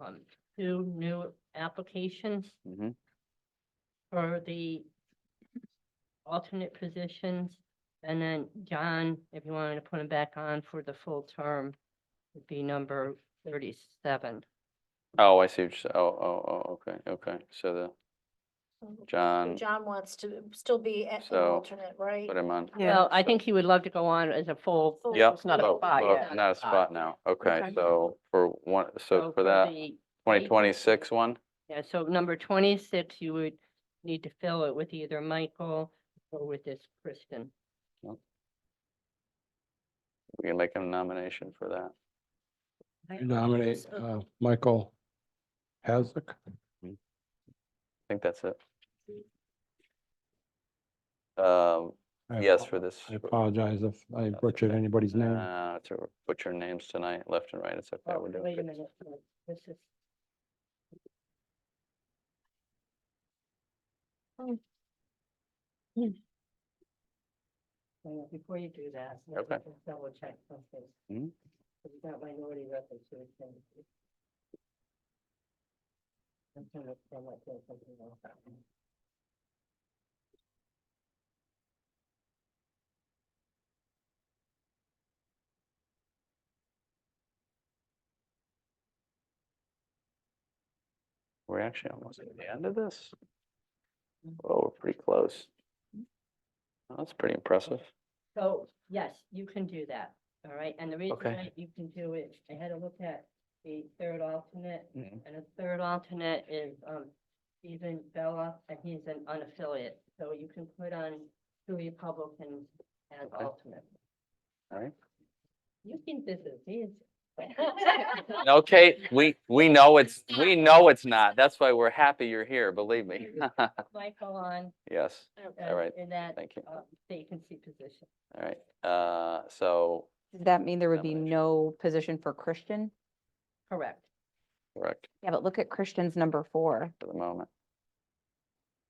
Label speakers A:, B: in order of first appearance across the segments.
A: um, two new applications
B: Mhm.
A: for the alternate positions. And then John, if you wanted to put him back on for the full term, would be number thirty-seven.
B: Oh, I see. what you're sa- Oh, oh, oh, okay, okay. So the
C: So
B: John,
C: John wants to still be a- an
B: So,
C: alternate, right?
B: put him on.
A: Well, I think he would love to go on as a full.
C: Full-
B: Yep.
D: Oh, It's not a
B: vote,
D: spot
B: vote,
D: yet.
B: Not a spot now. Okay,
D: Okay.
B: so for one, so for that
A: Oh, the-
B: twenty twenty-six one,
A: Yeah, so number twenty-six, you would need to fill it with either Michael or with this Kristen.
B: we can make a nomination for that.
E: Nominate uh, Michael Hasek.
B: I think that's it. Um,
E: I
B: yes,
E: apo-
B: for this.
E: I apologize if I butchered anybody's name.
B: Uh, to put your names tonight, left and right, it's okay.
A: Oh,
B: we're doing
A: wait a
B: good.
A: minute, no, this is. Oh. Hmm. Hang on, Before you do that. let me
B: Okay.
A: just Double check something.
B: Mhm.
A: Because you got minority records, so we can. I'm trying to find out if there's something else out there.
B: We're actually almost at the end of this. Well, we're pretty close. That's pretty impressive.
A: So, yes, you can do that, all right, and the reason
B: Okay.
A: that you can do it, I had a look at the third alternate,
B: Mhm.
A: and the third alternate is, um, Stephen Bella, and he's an unaffiliate, so you can put on two Republicans as
B: Okay.
A: alternate.
B: All right.
A: You think this is easy?
B: No, Kate, we, we know it's, we know it's not. That's why we're happy you're here, believe me.
A: Michael on,
B: Yes,
A: uh,
B: right.
A: in that,
B: thank you.
A: uh, vacancy position.
B: All right, uh, so,
D: Does that mean there would be
B: Nomination.
D: no position for Christian?
A: Correct.
B: correct
D: Yeah, but look at Christian's number four.
B: for the moment.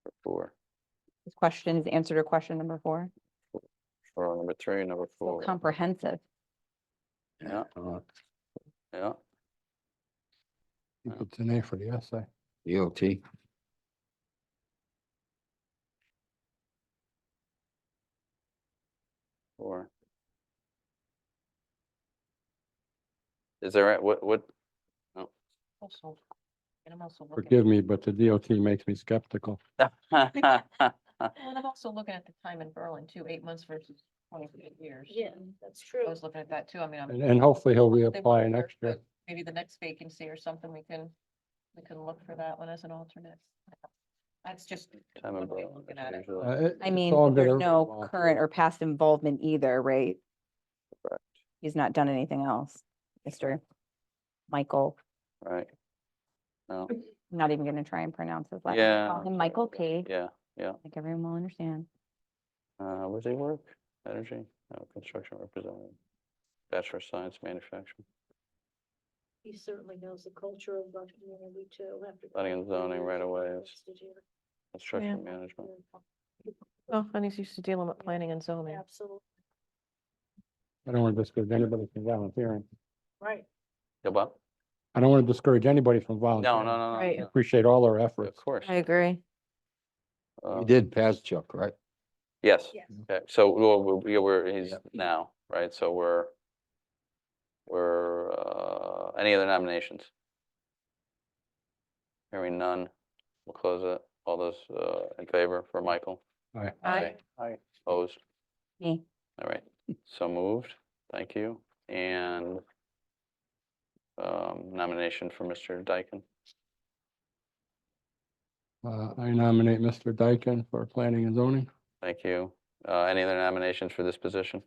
B: For Four,
D: His questions answered to question number four.
B: for number three, number
D: So
B: four.
D: comprehensive.
B: Yeah,
E: Uh,
B: yeah.
E: you put the name for the essay.
F: EOT.
B: Or. Is there, a- what, what,
G: And I'm also looking,
E: Forgive me, but the DOT makes me skeptical.
G: well, and I'm also looking at the time in Berlin too, eight months versus twenty-eight years.
A: Yeah.
C: That's
G: I
C: true.
G: was looking at that too. I mean, I'm.
E: And- And hopefully he'll
G: they
E: reapply
G: were
E: next
G: there,
E: year.
G: so Maybe the next vacancy or something, we can, we can look for that one as an alternate. That's just,
B: time
G: One
B: and
G: way of
B: bro- it's
G: looking at it.
B: usually-
E: Uh, it-
D: I
E: it's
D: mean,
E: all good
D: there's
E: every
D: no
E: while.
D: current or past involvement either, right?
B: Correct.
D: He's not done anything else, Mr. Michael.
B: Right. No,
D: I'm not even gonna try and pronounce his last. name.
B: Yeah.
D: Call him Michael Page.
B: yeah, yeah.
D: Like everyone will understand.
B: Uh, where does he work? Energy, no, construction representative. Bachelor of Science, manufacturing,
C: He certainly knows the culture of our community too. after
B: Planning and
C: 23
B: zoning
C: years
B: right
C: of
B: away
C: being
B: is-
C: listed here.
B: construction management.
G: oh, and he's used to dealing with planning and zoning.
C: Absolutely,
E: I don't want to discourage anybody from volunteering.
C: right.
B: Yeah, well,
E: I don't want to discourage anybody from
B: no,
E: volunteering.
B: no, no,
G: Right.
B: no,
E: Appreciate all their
B: no,
E: efforts.
B: of course.
G: agree.
B: Uh,
F: You did pass Chuck, right?
B: Yes,
C: Yes.
B: okay, so well, we- we- we're, he's
F: Yep.
B: now, right, so we're, we're, uh, any other nominations? Hearing none, we'll close it, all those uh, in favor for Michael?
E: Aye.
G: Aye.
B: Aye. Opposed?
D: Me.
B: All right, so moved, thank you, and um, nomination for Mr. Dyken,
E: Uh, I nominate Mr. Dyken for planning and zoning.
B: thank you. Uh, Any other nominations for this position?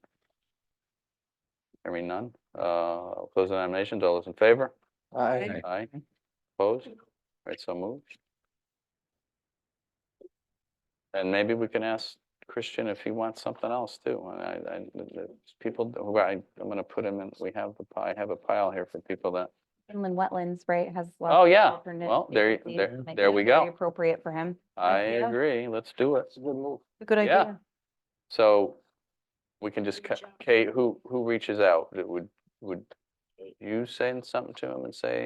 B: Hearing none, uh, I'll close the nominations, all those in favor?
F: Aye.
B: Aye. Opposed? Right, so moved. And maybe we can ask Christian if he wants something else too. And I, I, the- the people, who I, I'm gonna put him in, we have the pie, I have a pile here for people that,
D: Inland wetlands, right, has. lots
B: Oh,
D: of
B: yeah.
D: alternate
B: Well, there y-
D: vacancies.
B: there-
D: Might be
B: there we
D: very
B: go.
D: Appropriate for him.
B: I
D: Yeah.
B: agree, let's do it.
G: Good
B: Yeah. So we can just,
C: Good
B: ca-
C: job.
B: Kate, who, who reaches out? Would, would you send something to him and say,